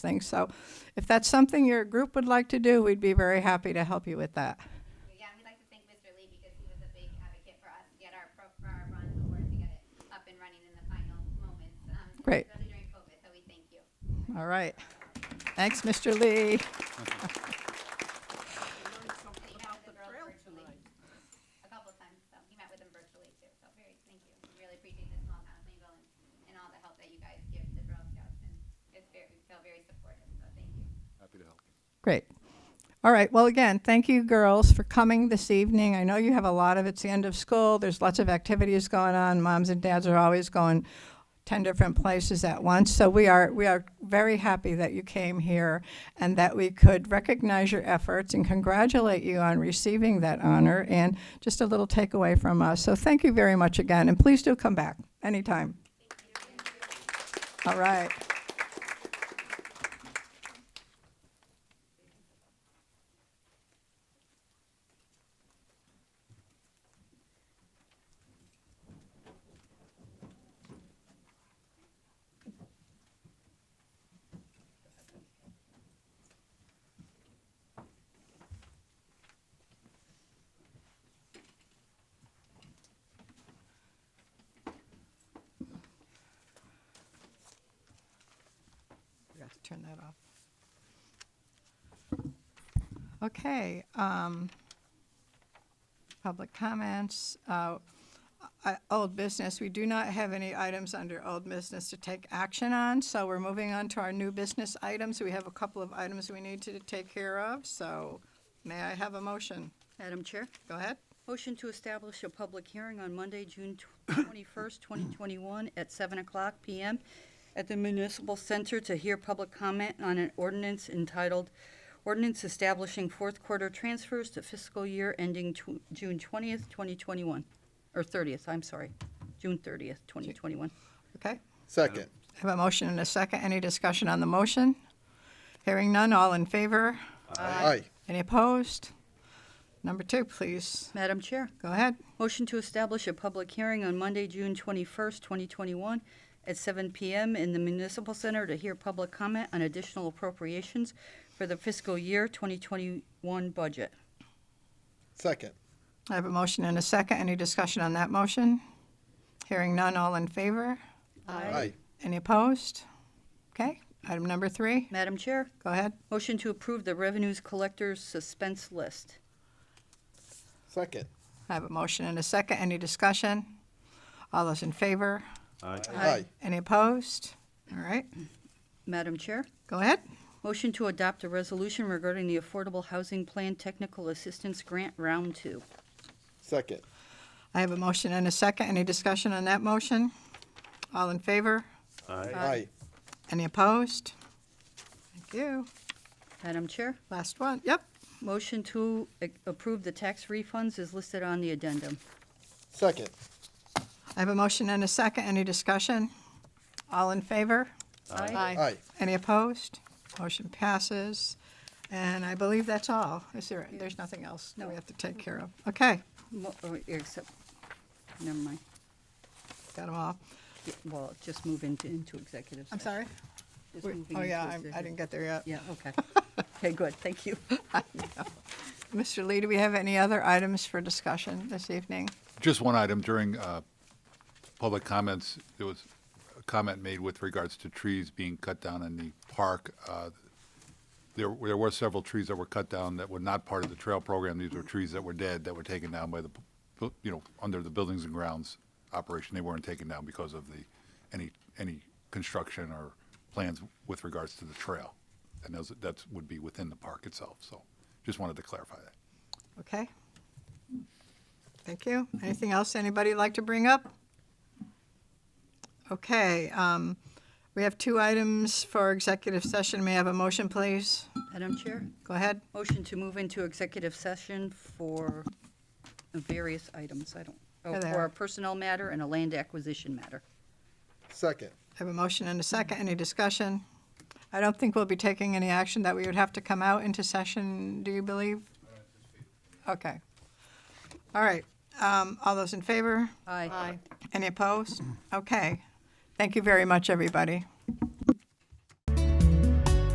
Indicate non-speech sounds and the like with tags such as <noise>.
things. So if that's something your group would like to do, we'd be very happy to help you with that. Yeah, we'd like to thank Mr. Lee because he was a big advocate for us to get our pro, for our bronze award, to get it up and running in the final moments. um, Great. Especially during COVID, so we thank you. All right. Thanks, Mr. Lee. He met with the girls virtually a couple of times, so he met with them virtually too, so very, thank you. We Really appreciate the small town of Plainville and, and all the help that you guys give the Girl Scouts and it's very, we feel very supportive, so thank you. Happy to help. Great. All right. Well, again, thank you, girls, for coming this evening. I know you have a lot of it's the end of school. There's lots of activities going on. Moms and dads are always going ten different places at once. So we are we are very happy that you came here and that we could recognize your efforts and congratulate you on receiving that honor and just a little takeaway from us. So thank you very much again, and please do come back anytime. All right. Yeah, turn that off. Okay, um, public comments, uh, I- old business, we do not have any items under old business to take action on, so we're moving on to our new business items. We have a couple of items we need to take care of, so may I have a motion? Madam Chair, Go ahead. motion to establish a public hearing on Monday, June tw- <coughs> 21st, 2021, at 7 o'clock PM at the Municipal Center to hear public comment on an ordinance entitled Ordinance Establishing Fourth Quarter Transfers to Fiscal Year Ending Tw- June 20th, 2021, or 30th, I'm sorry, June 30th, 2021. Okay, Second. have a motion and a second. Any discussion on the motion? Hearing none, all in favor? Aye. Any opposed? Number two, please. Madam Chair, Go ahead. Motion to establish a public hearing on Monday, June 21st, 2021, at 7 PM in the Municipal Center to hear public comment on additional appropriations for the fiscal year 2021 budget. Second. I have a motion and a second. Any discussion on that motion? Hearing none, all in favor? Aye. Any opposed? Okay, item number three, Madam Chair, go ahead. motion to approve the revenues collectors suspense list. Second. I have a motion and a second. Any discussion? All those in favor? Aye. Any opposed? All right, Madam Chair, go ahead. motion to adopt a resolution regarding the Affordable Housing Plan Technical Assistance Grant Round 2. Second. I have a motion and a second. Any discussion on that motion? All in favor? Aye. Any opposed? Thank you. Madam Chair, Last one, yep. motion to a- approve the tax refunds is listed on the addendum. Second. I have a motion and a second. Any discussion? All in favor? Aye. Any opposed? Motion passes. And I believe that's all. Is there, there's nothing else that we have to take care of? Okay, Mo- oh, Except, never mind. got them all. Yeah, Well, just move into, into executive I'm sorry? session. Just Wait, moving Oh, into yeah, I'm- I executive- didn't get there yet. Yeah, okay. <laughs> Okay, good, thank you. Mr. Lee, do we have any other items for discussion this evening? Just one item during uh, public comments, there was a comment made with regards to trees being cut down in the park. Uh, There there were several trees that were cut down that were not part of the trail program. These were trees that were dead, that were taken down by the, bu- you know, under the buildings and grounds operation. They weren't taken down because of the, any, any construction or plans with regards to the trail. And those, that would be within the park itself, so just wanted to clarify that. Okay. Thank you. Anything else anybody like to bring up? Okay, um, we have two items for executive session. May I have a motion, please? Madam Chair, Go ahead. motion to move into executive session for various items, I don't, oh, There they for are. a personnel matter and a land acquisition matter. Second. I have a motion and a second. Any discussion? I don't think we'll be taking any action that we would have to come out into session, do you believe? Okay. All right. Um, all those in favor? Aye. Any opposed? Okay. Thank you very much, everybody.